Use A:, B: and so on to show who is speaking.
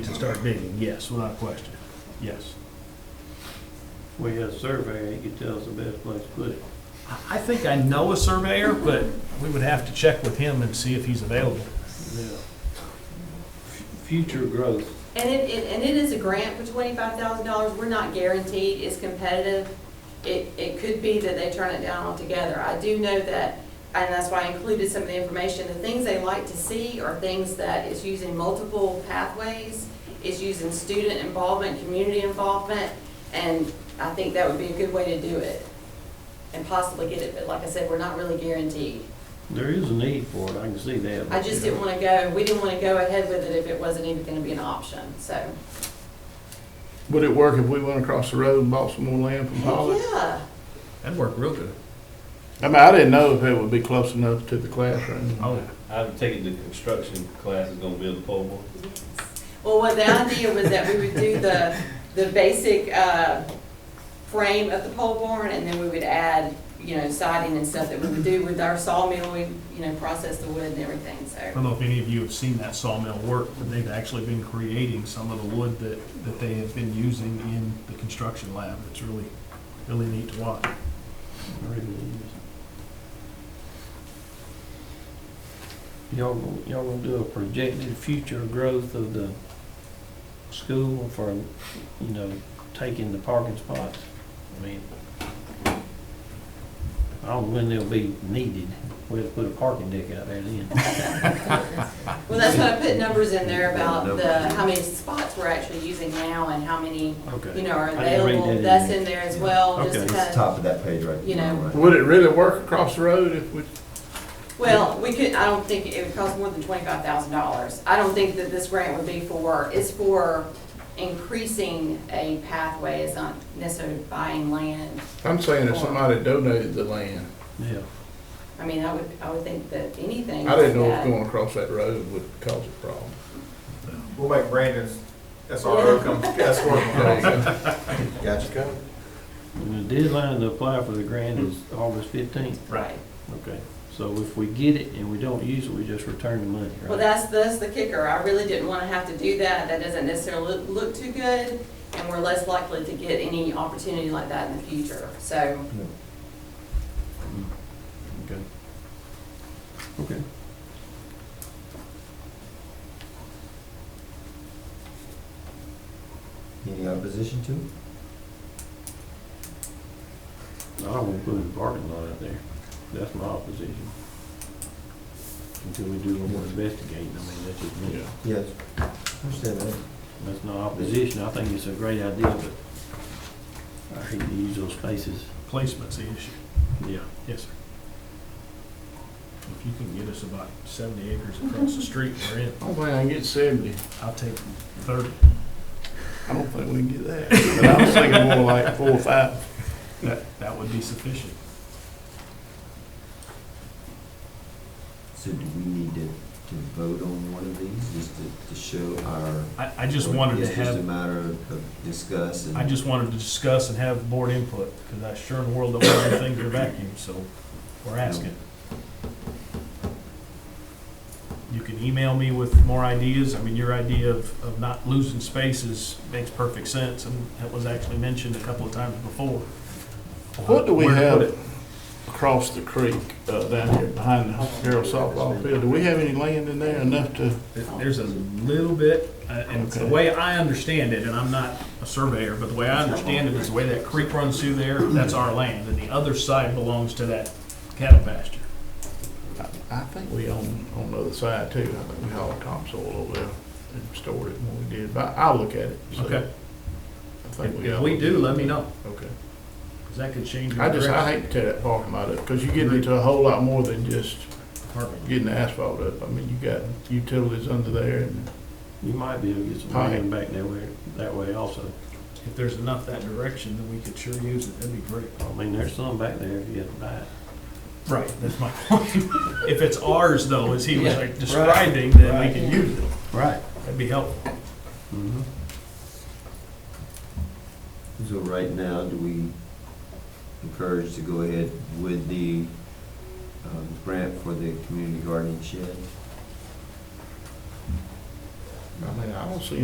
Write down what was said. A: to start digging, yes, without question, yes.
B: We had a survey, you could tell us the best place to put it.
A: I- I think I know a surveyor, but we would have to check with him and see if he's available.
B: Yeah. Future growth.
C: And it, it- and it is a grant for twenty-five thousand dollars, we're not guaranteed, it's competitive. It, it could be that they turn it down altogether. I do know that, and that's why I included some of the information, the things they like to see are things that is using multiple pathways, is using student involvement, community involvement, and I think that would be a good way to do it and possibly get it, but like I said, we're not really guaranteed.
B: There is a need for it, I can see that.
C: I just didn't wanna go, we didn't wanna go ahead with it if it wasn't even gonna be an option, so.
D: Would it work if we went across the road and bought some more land from Hollis?
C: Yeah.
A: That'd work real good.
D: I mean, I didn't know if it would be close enough to the classroom.
A: Oh,
E: I would take it the construction class is gonna build a pole barn.
C: Well, what the idea was that we would do the, the basic uh, frame of the pole barn, and then we would add, you know, siding and stuff that we would do with our sawmill, we, you know, process the wood and everything,
A: I
C: so.
A: don't know if any of you have seen that sawmill work, but they've actually been creating some of the wood that, that they have been using in the construction lab. It's really, really neat to watch.
B: Y'all, gonna- y'all gonna do a projected future growth of the school for, you know, taking the parking spots? I mean, I don't know when they'll be needed, we'll put a parking deck out there then.
C: Well, that's what I put numbers in there about the, how many spots we're actually using now and how many, you
B: Okay.
C: know,
B: I
C: are
B: didn't read that
C: available.
B: in
C: That's
B: there.
C: in there as well, just
B: Okay.
C: to
F: It's
C: kind of
F: top of that page right
C: You know.
F: right.
D: Would it really work across the road if we,
C: Well, we could, I don't think it would cost more than twenty-five thousand dollars. I don't think that this grant would be for, it's for increasing a pathway, it's not necessarily buying land.
D: I'm saying if somebody donated the land,
B: Yeah,
C: I mean, I would, I would think that anything.
D: I didn't know
C: that-
D: if going across that road would cause a problem.
G: We'll make Brandon's SRO come escort him.
D: There
F: Gotcha.
B: and the deadline to apply for the grant is August fifteenth.
C: Right.
B: Okay, so if we get it and we don't use it, we just return the money,
C: Well,
B: right?
C: that's, that's the kicker. I really didn't want to have to do that. That doesn't necessarily look, look too good, and we're less likely to get any opportunity like that in the future, so.
B: Okay. Okay.
F: Any opposition to it?
B: I don't want to put a parking lot out there. That's my opposition. Until we do a little more investigating, I mean, that's just me.
F: Yes. Understand that.
B: That's not opposition. I think it's a great idea, but I hate to use those spaces.
A: Placement's the issue.
B: Yeah.
A: Yes, sir. If you can get us about seventy acres across the street we're in,
D: I don't think I can get seventy.
A: I'll take thirty.
D: I don't think we can get that. But I was thinking more like four or five.
A: That, that would be sufficient.
F: So do we need to, to vote on one of these, just to, to show our?
A: I, I just wanted
F: It's
A: to
F: just a
A: have,
F: matter of of discuss and.
A: I just wanted to discuss and have board input, because I sure in the world don't want anything to vacuum, so we're asking. You can email me with more ideas. I mean, your idea of, of not losing spaces makes perfect sense, and that was actually mentioned a couple of times before.
D: What do we
A: Where to put it.
D: have across the creek, uh, down here behind the Harold softball field? Do we have any land in there enough to?
A: There- There's a little bit, uh, and the way I understand it, and I'm not a surveyor, but the way I understand it is the way that creek runs through there, that's our land, and the other side belongs to that cattle pasture.
D: I think we own, on the other side too, I think we hauled topsoil over there and stored it when we did, but I'll look at it. so
A: Okay.
D: I think we
A: If
D: own.
A: we do, let me know,
D: Okay.
A: 'cause that could change.
D: I just, I
A: direction.
D: hate to tear that parking lot up, because you get into a whole lot more than just getting the asphalt up. I mean, you got utilities under there and
B: You might be able to get some
D: Hi.
B: land back that way, that way also.
A: If there's enough that direction, then we could sure use it, that'd be great.
B: I mean, there's some back there if you had to buy it.
A: Right, that's my point. If it's ours though, as he was like describing,
B: Right.
A: then we can use it,
B: Right.
A: that'd be helpful.
B: Mm-hmm.
F: So right now, do we encourage to go ahead with the, um, grant for the community garden shed?
D: I mean, I don't see